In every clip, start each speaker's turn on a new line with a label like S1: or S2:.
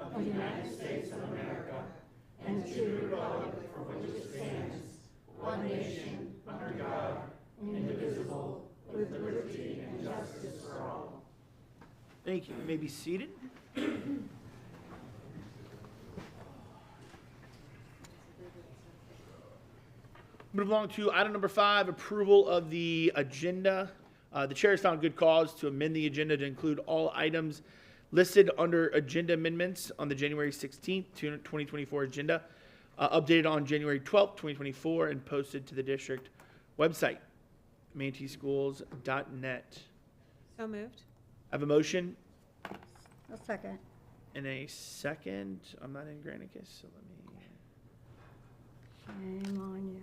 S1: of the United States of America and to the republic for which it stands, one nation, under God, indivisible, with liberty and justice for all.
S2: Thank you. You may be seated. Move along to item number five, approval of the agenda. Uh, The chair has found good cause to amend the agenda to include all items listed under agenda amendments on the January 16th, 2024 agenda, uh, updated on January 12th, 2024, and posted to the district website, manteschools.net.
S3: So moved.
S2: I have a motion
S4: A second.
S2: in a second. I'm not in Granicus, so let me.
S4: Shame on you.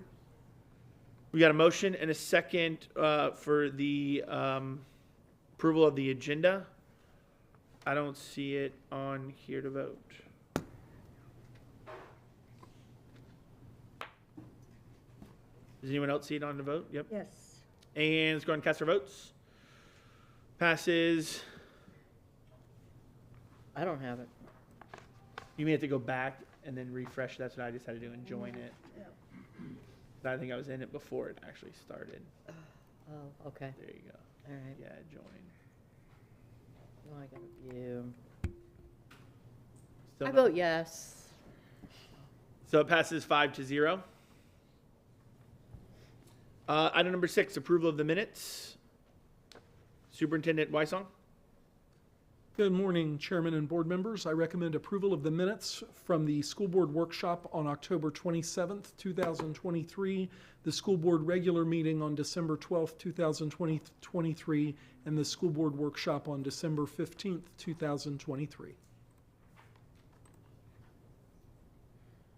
S2: We got a motion and a second uh, for the um, approval of the agenda. I don't see it on here to vote. Does anyone else see it on the vote? Yep.
S4: Yes.
S2: And let's go ahead and cast our votes. Passes.
S5: I don't have it.
S2: You may have to go back and then refresh. That's what I decided to do and join it. I think I was in it before it actually started.
S5: Oh, okay,
S2: There you go.
S5: all right.
S2: Yeah, join.
S5: No, I got a few.
S2: Still
S5: I
S2: not-
S5: vote yes.
S2: So it passes five to zero. Uh, item number six, approval of the minutes. Superintendent Weissong,
S6: Good morning, Chairman and Board members. I recommend approval of the minutes from the School Board Workshop on October 27th, 2023, the School Board Regular Meeting on December 12th, 2023, and the School Board Workshop on December 15th, 2023.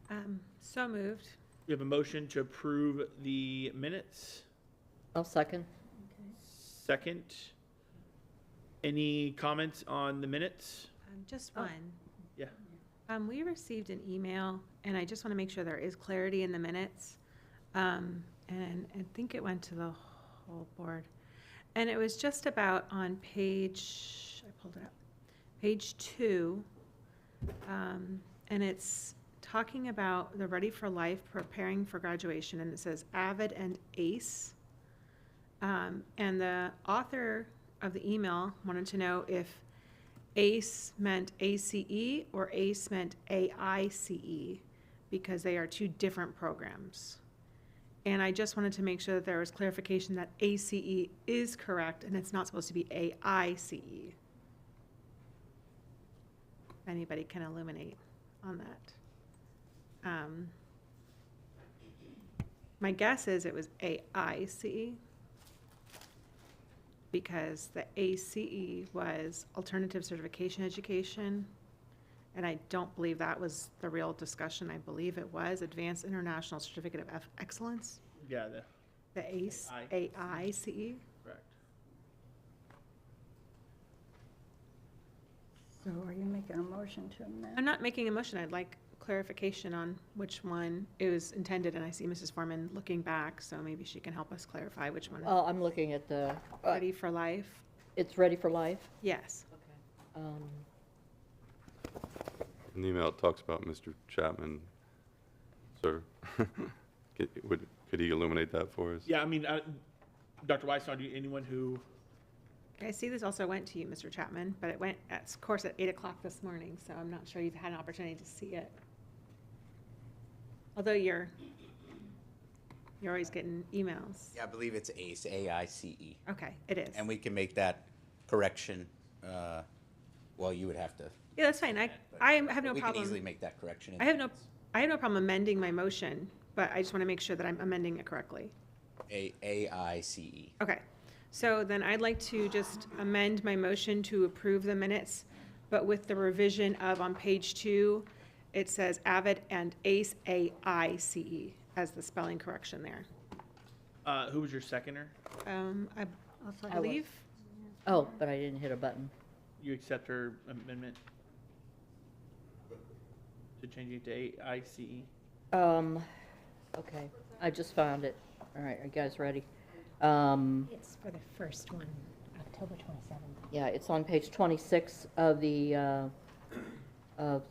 S3: Um, So moved.
S2: we have a motion to approve the minutes.
S5: I'll second.
S2: Second. Any comments on the minutes?
S3: Um, Just
S5: Oh.
S3: one.
S2: Yeah.
S3: Um, We received an email, and I just want to make sure there is clarity in the minutes. Um, And I think it went to the whole board. And it was just about on page, I pulled it up, page two. um, And it's talking about the Ready for Life, preparing for graduation, and it says Avid and ACE. Um, And the author of the email wanted to know if ACE E, meant ACE or ACE meant AICE E, because they are two different programs. And I just wanted to make sure that there was clarification that ACE is correct and it's not supposed to be AICE. If Anybody can illuminate on that. Um, My guess is it was AICE because the ACE was alternative certification education. And I don't believe that was the real discussion. I believe it was Advanced International Certificate of Eff- Excellence,
S2: Yeah, the,
S3: the ACE,
S2: AICE.
S3: AICE.
S2: correct.
S4: So are you making a motion to amend?
S3: I'm not making a motion. I'd like clarification on which one it was intended. And I see Mrs. Foreman looking back, so maybe she can help us clarify which one.
S5: Oh, I'm looking at the, uh,
S3: Ready for life?
S5: it's ready for life.
S3: Yes.
S5: Um,
S7: In the email, it talks about Mr. Chapman, sir. Could would- could he illuminate that for us?
S2: Yeah, I mean, uh, Dr. Weissong, do you- anyone who,
S3: I see this also went to you, Mr. Chapman, but it went, of course, at eight o'clock this morning, so I'm not sure you've had an opportunity to see it. Although you're, you're always getting emails.
S8: Yeah, I believe it's E. ACE, A-I-C-E.
S3: Okay, it is.
S8: And we can make that correction, uh, well, you would have to.
S3: Yeah, that's fine. I, I have no
S8: We can easily
S3: problem.
S8: make that correction.
S3: I have no, I have no problem amending my motion, but I just want to make sure that I'm amending it correctly.
S8: A, E. A-I-C-E.
S3: Okay, so then I'd like to just amend my motion to approve the minutes, but with the revision of on page two, it says Avid and ACE, A-I-C-E, E, as the spelling correction there.
S2: uh, who was your seconder?
S3: Um, I
S4: I'll second.
S3: believe,
S5: Oh, but I didn't hit a button.
S2: You accept her amendment? To change it to AICE?
S5: Um, okay, I just found it. All right, are you guys ready? Um,
S9: It's for the first one, October 27th.
S5: yeah, it's on page twenty-six of the, uh, of